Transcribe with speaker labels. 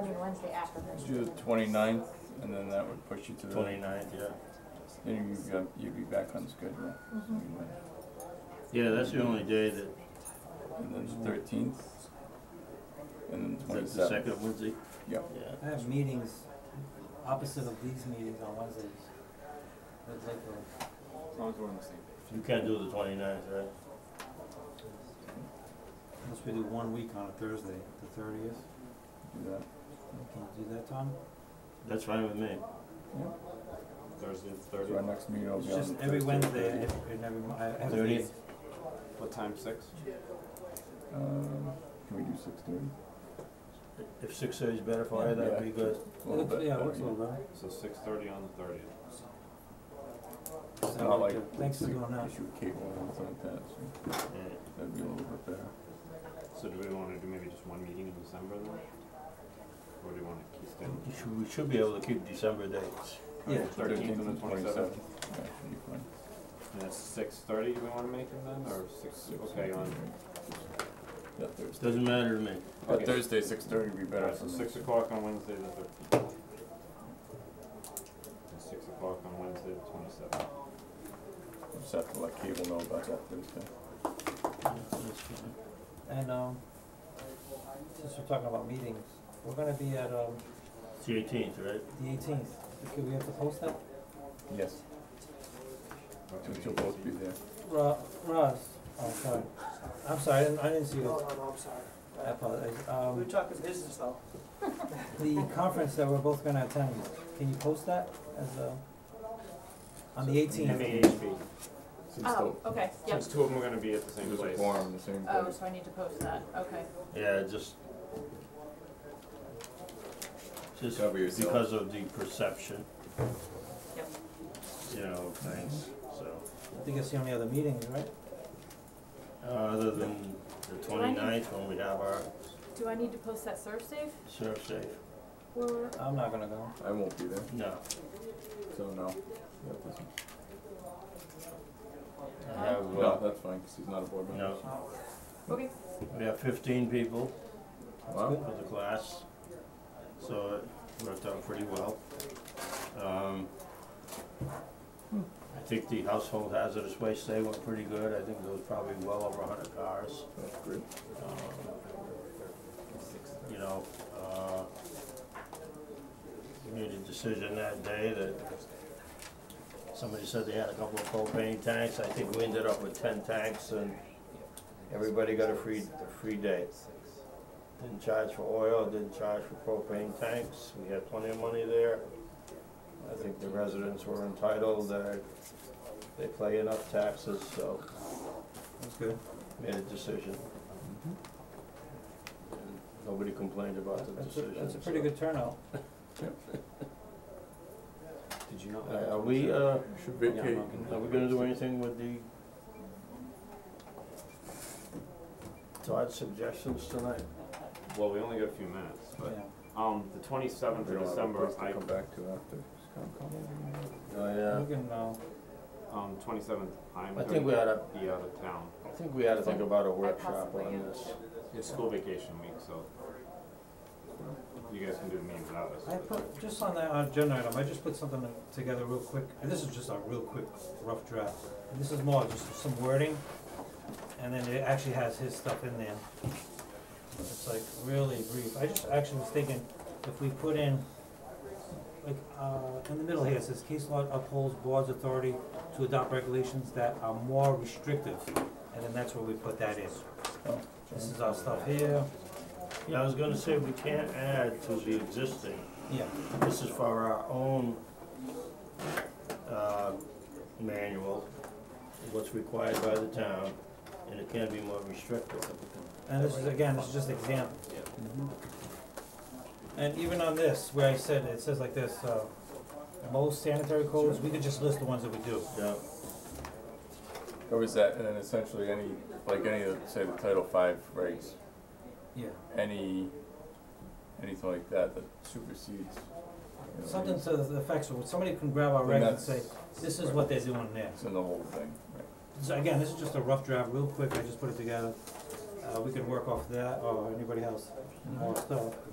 Speaker 1: mean Wednesday after this.
Speaker 2: Do the twenty-ninth, and then that would push you to the.
Speaker 3: Twenty-ninth, yeah.
Speaker 2: Then you'd be, you'd be back on schedule.
Speaker 3: Yeah, that's the only day that,
Speaker 2: And then the thirteenth, and then
Speaker 3: that's the
Speaker 2: twenty-seventh.
Speaker 3: second Wednesday.
Speaker 2: Yep.
Speaker 3: Yeah.
Speaker 4: I have meetings opposite of these meetings on Wednesdays. That's like the-
Speaker 5: As long as we're on the same
Speaker 3: You can't do the twenty-ninth, right?
Speaker 4: unless we do one week on a Thursday, the thirtieth.
Speaker 2: Do that.
Speaker 4: Can you do that, Tom?
Speaker 3: That's fine with me.
Speaker 2: Yep.
Speaker 5: Thursday,
Speaker 2: So
Speaker 5: thirty.
Speaker 2: our next meeting will
Speaker 4: It's
Speaker 2: be on the
Speaker 4: just every
Speaker 2: Thursday,
Speaker 4: Wednesday, I
Speaker 2: 30th.
Speaker 4: have, and every, mo- I have. to-
Speaker 3: 30th?
Speaker 5: What time, six?
Speaker 2: Um, can we do six thirty?
Speaker 3: If six thirty's better for you, that'd be
Speaker 2: A
Speaker 3: good.
Speaker 4: Yeah,
Speaker 2: little
Speaker 4: looks-
Speaker 2: bit.
Speaker 4: Yeah, it
Speaker 2: better,
Speaker 4: looks a little better.
Speaker 5: So six thirty on the thirtieth.
Speaker 4: Sounds
Speaker 2: Not like.
Speaker 4: like it. Thanks for
Speaker 2: we
Speaker 4: going out.
Speaker 2: Issue cable and stuff like that, so
Speaker 3: Yeah.
Speaker 2: that'd be a little bit better.
Speaker 5: So do we wanna do maybe just one meeting in December then? Or do you wanna keep them?
Speaker 3: You should- We should be able to keep December dates.
Speaker 4: Yeah.
Speaker 5: 13th and the 27th.
Speaker 2: Yeah, should be fine.
Speaker 5: And it's six thirty we wanna make them then, or six,
Speaker 2: Six,
Speaker 5: okay, on,
Speaker 2: Yeah, Thursday.
Speaker 3: Doesn't matter to me.
Speaker 2: But
Speaker 5: Okay.
Speaker 2: Thursday, six thirty would be better
Speaker 5: alright,
Speaker 2: for
Speaker 5: so
Speaker 2: me.
Speaker 5: six o'clock on Wednesday the thirteenth. And six o'clock on Wednesday the twenty-seventh.
Speaker 2: We'll Just have to let cable know about that Thursday.
Speaker 3: Yeah, that's fine.
Speaker 4: And, um, since we're talking about meetings, we're gonna be at, um,
Speaker 3: It's the eighteenth, right?
Speaker 4: the eighteenth. Could we have to post that?
Speaker 2: Yes, since you'll both be there.
Speaker 4: Ro- Roz, oh, sorry. I'm sorry, I didn't, I didn't see you. I apologize. Um,
Speaker 6: talking business though.
Speaker 4: the conference that we're both gonna attend, can you post that as a, on the eighteenth?
Speaker 5: MAHP,
Speaker 2: Since
Speaker 1: Oh,
Speaker 2: the-
Speaker 1: okay, yep.
Speaker 5: since two of them are gonna be at the same
Speaker 2: There's a
Speaker 5: place.
Speaker 2: quorum in the same
Speaker 1: Oh,
Speaker 2: place.
Speaker 1: so I need to post that, okay.
Speaker 3: Yeah, just. Just
Speaker 2: Cover yourself.
Speaker 3: because of the perception.
Speaker 1: Yep.
Speaker 3: You know, of things, so.
Speaker 4: I think it's the only other meeting, right?
Speaker 3: Uh, Other than
Speaker 1: I
Speaker 3: the
Speaker 1: need-
Speaker 3: twenty-ninth, when we have our
Speaker 1: Do I need to post that serve safe
Speaker 3: serve safe,
Speaker 1: or?
Speaker 4: I'm not gonna go.
Speaker 2: I won't be there,
Speaker 3: no,
Speaker 2: so no.
Speaker 3: I have,
Speaker 2: No,
Speaker 3: uh,
Speaker 2: that's fine, because he's not a board member.
Speaker 3: no,
Speaker 1: Okay,
Speaker 3: we have fifteen people
Speaker 2: Wow,
Speaker 3: for the class, so it worked out pretty well. Um,
Speaker 1: Hmm.
Speaker 3: I think the household hazardous waste day went pretty good, I think there was probably well over hundred cars.
Speaker 2: that's great.
Speaker 3: um, you know, uh, we made a decision that day that somebody said they had a couple of propane tanks, I think we ended up with ten tanks and everybody got a free, a free day. Didn't charge for oil, didn't charge for propane tanks, we had plenty of money there. I think the residents were entitled, they they pay enough taxes, so
Speaker 4: That's good.
Speaker 3: made a decision. And Nobody complained about the
Speaker 4: Mm-hmm. That's a,
Speaker 3: decision.
Speaker 4: that's a pretty
Speaker 3: so-
Speaker 4: good turnout.
Speaker 5: Did you not?
Speaker 3: Uh, Are we, uh,
Speaker 2: Should
Speaker 5: Yeah,
Speaker 2: vacate.
Speaker 5: I'm not
Speaker 3: are we gonna do anything with the Todd's suggestions tonight?
Speaker 5: Well, we only got a few minutes,
Speaker 4: Yeah.
Speaker 5: but, um, the twenty-seventh
Speaker 2: We
Speaker 5: of
Speaker 2: don't have a
Speaker 5: December,
Speaker 2: place to
Speaker 5: I
Speaker 2: come back to after. Just come- come over.
Speaker 3: Oh,
Speaker 4: We can, uh,
Speaker 5: Um, twenty-seventh, I'm
Speaker 3: yeah, I
Speaker 5: gonna
Speaker 3: think we ought to,
Speaker 5: be out of town.
Speaker 3: I think we ought to think about a workshop
Speaker 1: possibly
Speaker 3: on
Speaker 1: am.
Speaker 3: this.
Speaker 5: It's school vacation week, so you guys can do the meeting without us.
Speaker 4: I put, just on that agenda item, I just put something together real quick, and this is just a real quick rough draft. And this is more just some wording, and then it actually has his stuff in there. It's like really brief. I just actually was thinking, if we put in, like, uh, in the middle here, it says case law upholds board's authority to adopt regulations that are more restrictive, and then that's where we put that in.
Speaker 2: Oh.
Speaker 4: This is our stuff here,
Speaker 3: Yeah, I was gonna say, we can't add to the existing,
Speaker 4: yeah,
Speaker 3: this is for our own, uh, manual, what's required by the town, and it can be more restrictive.
Speaker 4: and this is, again, this is just examples. And even on this, where I said, it says like this, uh, most sanitary codes, we could just list the ones that we do.
Speaker 3: Yeah.
Speaker 2: Or Oh, is that, and then essentially any, like any of, say, the Title V regs,
Speaker 4: Yeah.
Speaker 2: any, anything like that that supersedes. you know,
Speaker 4: Something
Speaker 2: regs,
Speaker 4: to the effects, of somebody can grab our
Speaker 2: then
Speaker 4: regs and
Speaker 2: that's-
Speaker 4: say, this is what they're doing there.
Speaker 2: It's in the whole thing, right?
Speaker 4: So again, this is just a rough draft, real quick, I just put it together. Uh, we can work off that, or anybody else, more stuff.